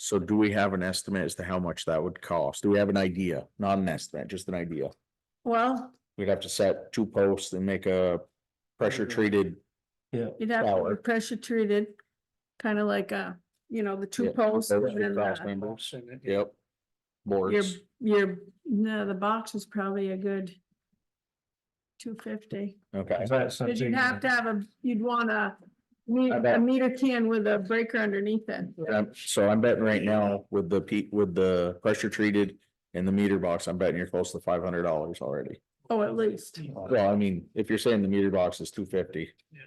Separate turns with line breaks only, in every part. So do we have an estimate as to how much that would cost? Do we have an idea? Not an estimate, just an idea.
Well,
We'd have to set two posts and make a pressure treated.
you'd have to
Shower.
be pressure treated, kind of like uh you know, the two
Yeah,
posts
those
and
with
then
cross
the-
members. Yep.
your,
Boards.
your, no, the box is probably a good two fifty.
Okay.
Is that
Cause
something?
you'd have to have a, you'd want a me-
I
a
bet.
meter can with a breaker underneath it.
And I'm- Um, So I'm betting right now with the peak, with the pressure treated and the meter box, I'm betting you're close to five hundred dollars already.
Oh, at least.
Well, I mean, if you're saying the meter box is two fifty.
Yeah.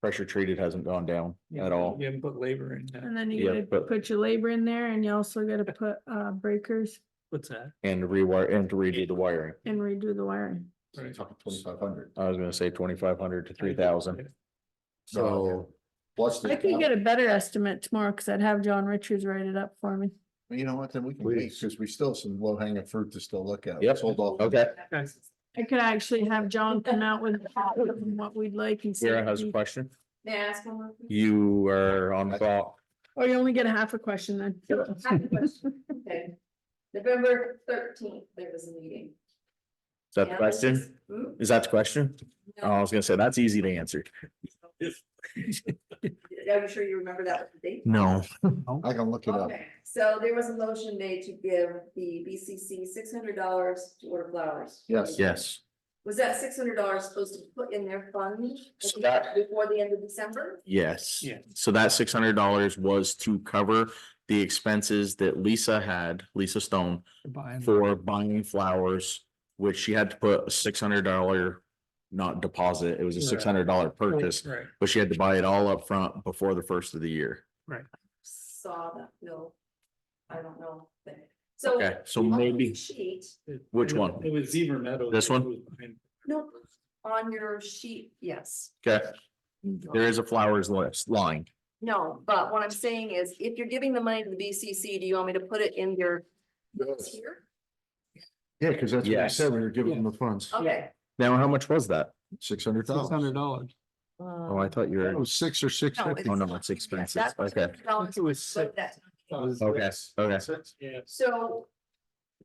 Pressure treated hasn't gone down at all.
You haven't put labor in that.
And then you
Yeah,
gotta
but-
put your labor in there and you also gotta put uh breakers
What's that?
And to rewire and to redo the wiring.
and redo the wiring.
Right.
Twenty-five hundred.
I was gonna say twenty-five hundred to three thousand, so.
Plus. the
I could get
account-
a better estimate tomorrow, cause I'd have John Richards write it up for me.
You know what, then we can wait, because we still have some low hanging fruit to still look at.
Yep.
Let's Hold off.
Okay,
Okay.
I could actually have John come out with what we'd like and see.
Sarah
if
has a
he-
question.
May I ask one more? question?
You are on the clock.
Oh, you only get a half a question then.
I have a question. Okay. November thirteenth, there was a meeting.
Is that the
And
question?
Hmm?
Is that the question? Oh,
No,
I was gonna say, that's easy to answer.
I'm sure you remember that was the date.
No.
I can look it up.
Okay, so there was a motion made to give the BCC six hundred dollars to order flowers.
Yes.
Yes.
Was that six hundred dollars supposed to put in their fund
So that-
before the end of December?
Yes.
Yeah.
So that six hundred dollars was to cover the expenses that Lisa had, Lisa Stone,
Buying-
for buying flowers, which she had to put a six hundred dollar, not deposit, it was a
Right.
six hundred dollar purchase,
Right,
but she had to buy it all up front before the first of the year.
Saw that, no. I don't know. but- So.
Okay, so
on the
maybe,
Sheet,
It-
Which
it was-
one?
It was Zebra Meadows.
This one?
no, on your sheet, yes.
okay, there is a flowers list line.
No, but what I'm saying is, if you're giving the money to the BCC, do you want me to put it in your? tier?
Yeah, because that's what I
Yes.
said, we were giving them the funds,
Okay.
Now, how much was that?
six hundred thousand.
dollars.
Oh, I thought you
It
were,
was six or six
No,
fifty.
oh, no,
not.
it's expenses.
That's
Okay.
$600,
It was
but
six.
that's-
okay, okay,
Yeah.
So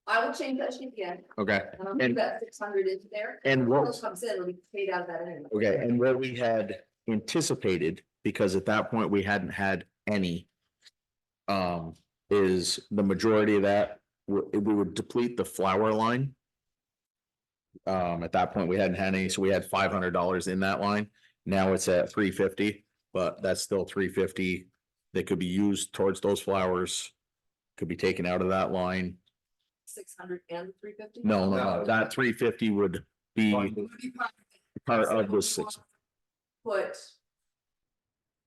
I will change that sheet again,
okay.
and I'll put
And-
that six hundred into there.
And
When
what,
it Comes in, it'll be paid out of that anyway.
Okay, and what we had anticipated, because at that point we hadn't had any. Um, is the majority of that, we, we would deplete the flower line. Um, at that point, we hadn't had any, so we had five hundred dollars in that line. Now it's at three fifty, but that's still three fifty. That could be used towards those flowers. Could be taken out of that line.
Six hundred and three fifty?
No, no, no, that three fifty would be part of the six,
Put.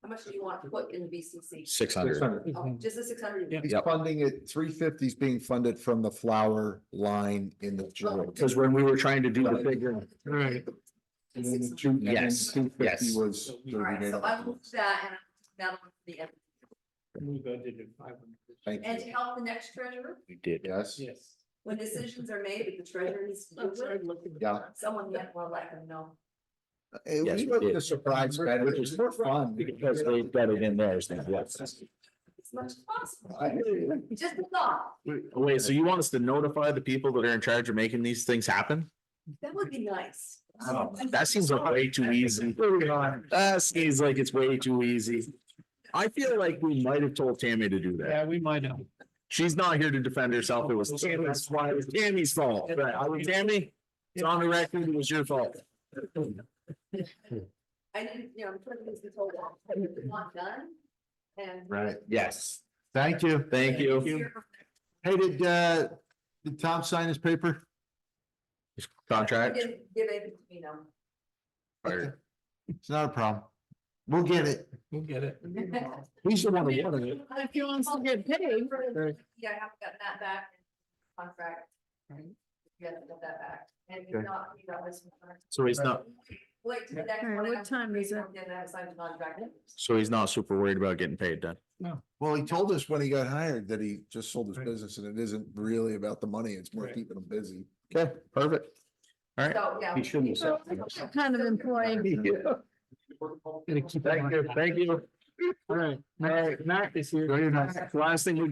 How much do you want to put in the BCC?
six hundred.
Oh, Just the six hundred?
Yeah.
He's
Yep.
funding it, three fifty is being funded from the flower line in the. general.
Because when we were trying to do the figure,
Right.
And then the two- and then
Yes,
Two
yes.
fifty was. the
All
Alright, so I will
remaining.
do that and I'll do that one for the end.
We budgeted five hundred.
Thank
And
you.
to help the next treasurer,
we did.
Yes,
Yes.
when decisions are made, if the treasurer needs to do it,
yeah.
someone yet will let them know.
Hey,
Yes,
We
we
love
did.
the surprise benefit, it's more fun.
Because they've got it in theirs now, yes.
As much as possible.
I hear you.
Just a thought,
Wait, so you want us to notify the people that are in charge of making these things happen?
that would be nice.
Oh. That seems like way too easy. That seems like it's way too easy. I feel like we might have told Tammy to do that.
Yeah, we might know.
She's not here to defend herself. It was Tammy's, fault. It was Tammy's fault. Right, I mean, Tammy, it's on the record, it was your fault.
I didn't, you know, I'm trying to get this whole lot, not done. And.
Right,
Yes,
thank you.
thank you.
Hey, did, uh, did Tom sign his paper?
Contract.
Give it, you know.
or-
It's not a problem. We'll get it.
We'll get it.
He's the one who wanted it.
If he wants to get paid.
Yeah, I haven't gotten that back. in Contract.
Right.
You haven't got that back. And
Okay.
you've not, you know, this. one.
So he's not,
Wait till the next
Alright,
one.
what time is it?
Then I have signed the contract.
so he's not super worried about getting paid then.
Well, he told us when he got hired that he just sold his
Right.
business and it isn't really about the money, it's more
Right.
keeping him busy.
Okay, perfect. All right.
So, yeah.
shouldn't
Kind of employee.
Thank you, thank you. All right, Matt, Matt is here.
Very nice.
Last thing we do.